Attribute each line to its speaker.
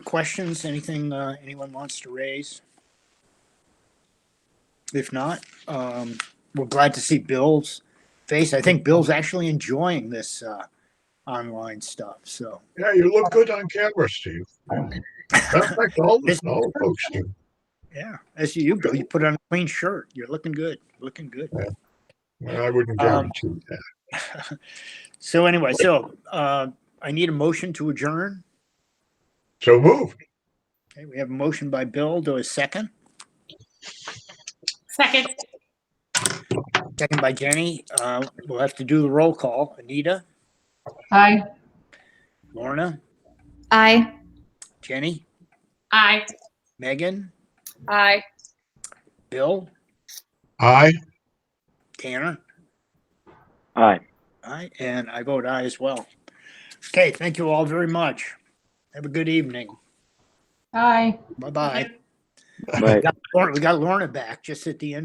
Speaker 1: questions, anything uh, anyone wants to raise? If not, um, we're glad to see Bill's face. I think Bill's actually enjoying this uh, online stuff. So
Speaker 2: Yeah, you look good on camera, Steve. That's like all the all the folks do.
Speaker 1: yeah, as you Bill, you put on a clean shirt. You're looking good. Looking good.
Speaker 2: I wouldn't
Speaker 1: Um,
Speaker 2: guarantee that.
Speaker 1: So anyway, so uh, I need a motion to adjourn.
Speaker 2: So moved.
Speaker 1: Okay, we have a motion by Bill. Do a second.
Speaker 3: Second,
Speaker 1: Second by Jenny. Uh, we'll have to do the roll call. Anita,
Speaker 4: Aye.
Speaker 1: Lorna,
Speaker 4: Aye.
Speaker 1: Jenny,
Speaker 3: aye.
Speaker 1: Megan,
Speaker 3: Aye.
Speaker 1: Bill,
Speaker 2: Aye.
Speaker 1: Tanner.
Speaker 5: Aye.
Speaker 1: Aye, and I vote aye as well. Okay, thank you all very much. Have a good evening.
Speaker 4: Aye.
Speaker 1: Bye bye.
Speaker 5: Right.
Speaker 1: We got Lorna back just at the end.